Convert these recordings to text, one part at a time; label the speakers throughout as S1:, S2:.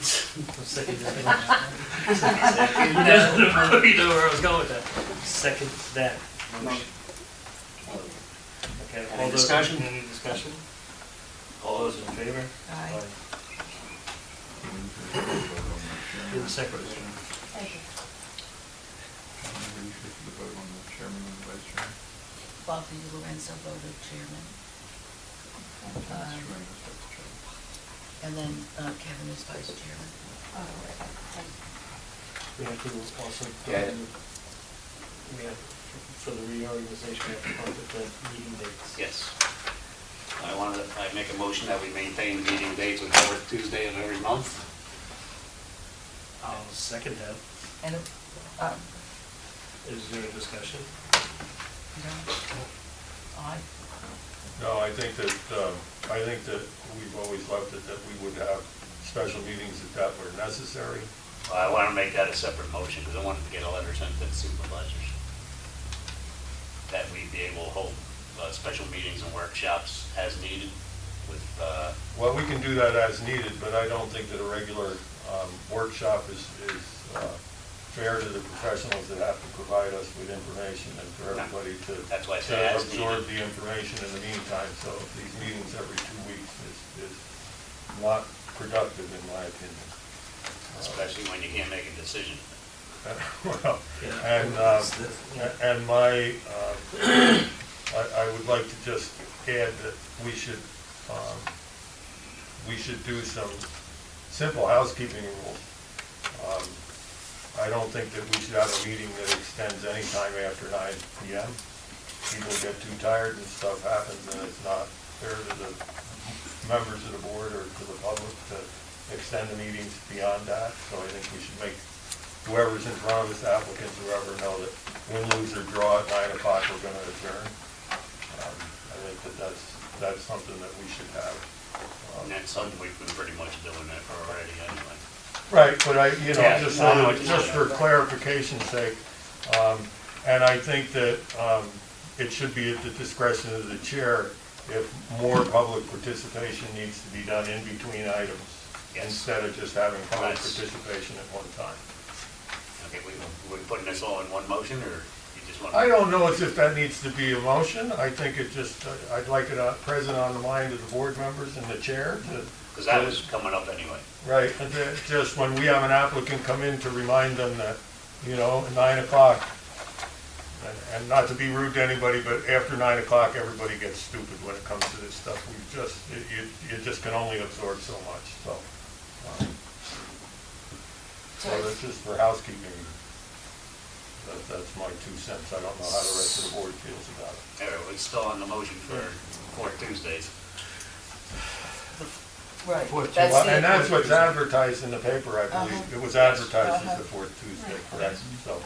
S1: Second. No, You know where I was going with that. Second that. motion. Okay,
S2: Any
S1: all those,
S2: discussion?
S1: any discussion? All those in favor?
S3: Aye.
S1: Do the separate.
S3: Thank you.
S4: Maybe you should put the vote on the chairman and the vice chairman.
S3: Bobby Lorenzo voted chairman,
S4: Mr.
S3: Um,
S4: Raymond is vice chairman.
S3: and then uh, Kevin is vice chairman.
S1: We have to also.
S2: Yeah.
S1: We have, for the reorganization, we have to come up with the meeting dates.
S2: Yes. I want to, I make a motion that we maintain meeting dates with every Tuesday of every month.
S1: I'll second that.
S3: And, um,
S1: Is there a discussion?
S3: you know, I,
S5: No, I think that, um, I think that we've always left it that we would have special meetings if that were necessary.
S2: I want to make that a separate motion because I wanted to get a letter sent to the supervisors. That we be able to hold uh, special meetings and workshops as needed with, uh,
S5: Well, we can do that as needed, but I don't think that a regular um, workshop is, is uh, fair to the professionals that have to provide us with information and for
S2: No.
S5: everybody to.
S2: That's why I
S5: to
S2: say as needed.
S5: Absorb the information in the meantime, so these meetings every two weeks is, is not productive in my opinion.
S2: especially when you can't make a decision.
S5: Well,
S1: Yeah.
S5: And, um,
S1: Yeah.
S5: and my, um, I, I would like to just add that we should, um, we should do some simple housekeeping rules. Um, I don't think that we should have a meeting that extends any time after nine PM. People get too tired and stuff happens, and it's not fair to the members of the board or to the public to extend the meetings beyond that, so I think we should make whoever's in front of us, applicants, whoever, know that win, lose, or draw at nine o'clock, we're gonna adjourn. Um, I think that that's, that's something that we should have. um,
S2: And that's something we've been pretty much doing that for already anyway.
S5: Right, but I, you know,
S2: Yeah,
S5: just
S2: no, I know
S5: so,
S2: what you're
S5: just for
S2: saying.
S5: clarification's sake, um, and I think that, um, it should be at the discretion of the chair if more public participation needs to be done in between items
S2: Yes.
S5: instead of just having public
S2: Nice.
S5: participation at one time.
S2: Okay, we, we putting this all in one motion, or you just want?
S5: I don't know as if that needs to be a motion. I think it just, I'd like it uh, present on the mind of the board members and the chair to,
S2: Because that was coming up anyway.
S5: right, and that just when we have an applicant come in to remind them that, you know, at nine o'clock. and- And not to be rude to anybody, but after nine o'clock, everybody gets stupid when it comes to this stuff. We just, it- you, you just can only absorb so much, so. um, So
S1: Oh,
S5: that's just for housekeeping. That, that's my two cents. I don't know how the rest of the board feels about it.
S2: All right, we're still on the motion for, for Tuesdays.
S3: right.
S1: Fourth
S3: that's
S5: Well,
S3: the-
S5: And that's what's advertised in the paper, I believe.
S3: Uh-huh.
S5: It was advertised as
S3: Uh-huh.
S5: the fourth Tuesday, correct? So,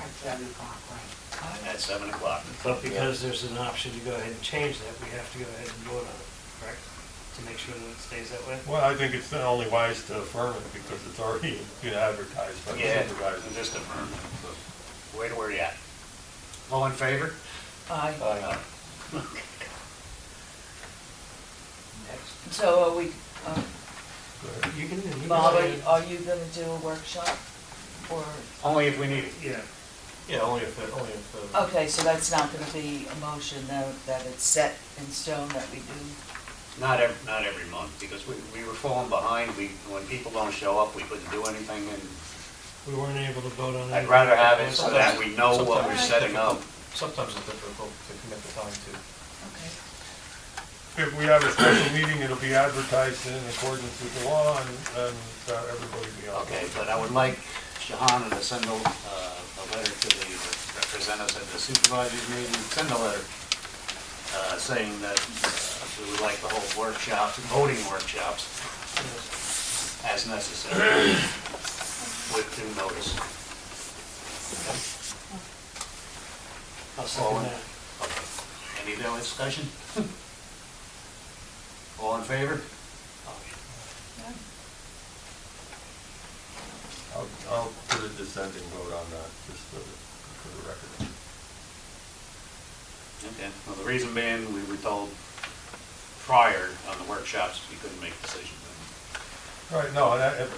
S2: At seven o'clock.
S1: But because there's an option to go ahead and change that, we have to go ahead and vote on it, correct? To make sure that it stays that way?
S5: well, I think it's only wise to affirm it because it's already been advertised by the
S2: Yeah,
S5: supervisors.
S2: just a, where, where you at? All in favor?
S3: Aye.
S5: Uh,
S2: Next.
S3: So are we, um,
S5: good.
S1: You can, you can.
S3: Bobby, are you gonna do a workshop? Or,
S2: Only if we need it.
S1: Yeah.
S5: Yeah, only if, it- only if. uh,
S3: okay, so that's not gonna be a motion that, that it's set in stone that we do.
S2: Not ev, not every month, because we, we were falling behind. We, when people don't show up, we couldn't do anything, and
S1: We weren't able to vote on it.
S2: I'd rather have it so that we know what we're setting up.
S6: Sometimes it's difficult to commit the time to.
S3: Okay.
S5: If we have a special meeting, it'll be advertised in accordance with the law and, and uh, everybody will be on.
S2: Okay, but I would like Shahana to send a, uh, a letter to the, represent us at the supervisors meeting, send a letter, uh, saying that uh, we would like to hold workshops, voting workshops as necessary with due notice.
S1: I'll second that.
S2: Okay. Any other discussion? All in favor?
S3: Yeah.
S5: I'll, I'll put a dissenting vote on that, just for the, for the record.
S2: Okay, well, the reason being, we were told prior on the workshops, we couldn't make decisions.
S5: All Right, no, and I- if-